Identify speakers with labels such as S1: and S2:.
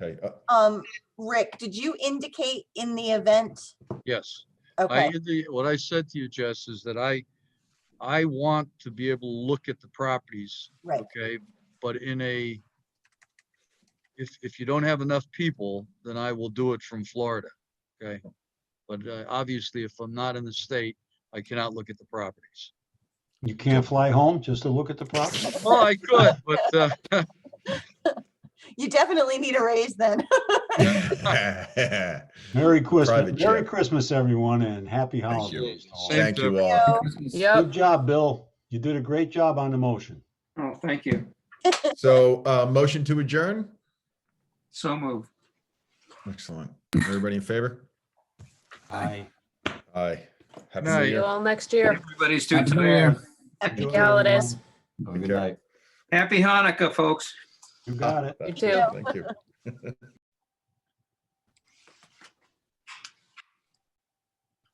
S1: Okay, uh,
S2: Um, Rick, did you indicate in the event?
S3: Yes, I,
S2: Okay,
S3: indi- what I said to you, Jess, is that I, I want to be able to look at the properties,
S2: right,
S3: okay? But in a, if, if you don't have enough people, then I will do it from Florida, okay? But uh, obviously, if I'm not in the state, I cannot look at the properties.
S4: You can't fly home just to look at the property?
S3: Well, I could, but, uh,
S2: you definitely need a raise then.
S4: Merry Christmas,
S1: Private
S4: Merry
S1: jet.
S4: Christmas, everyone, and happy
S1: Thank you.
S4: holidays. to all.
S3: Same
S1: Thank
S3: to
S1: you
S3: everyone.
S1: all.
S5: Yep.
S4: Good job, Bill. You did a great job on the motion.
S5: Oh, thank you.
S1: So, uh, motion to adjourn?
S5: So move.
S1: Excellent. Everybody in favor?
S4: Aye.
S1: Aye. Happy New
S3: Night.
S5: See
S1: Year.
S6: you all next year.
S5: Everybody's doing
S7: Happy New Year.
S5: today.
S2: Happy
S6: Happy holidays.
S7: Have a good
S1: Okay.
S7: night.
S5: Happy Hanukkah, folks.
S4: You got it.
S6: You too.
S1: Thank you.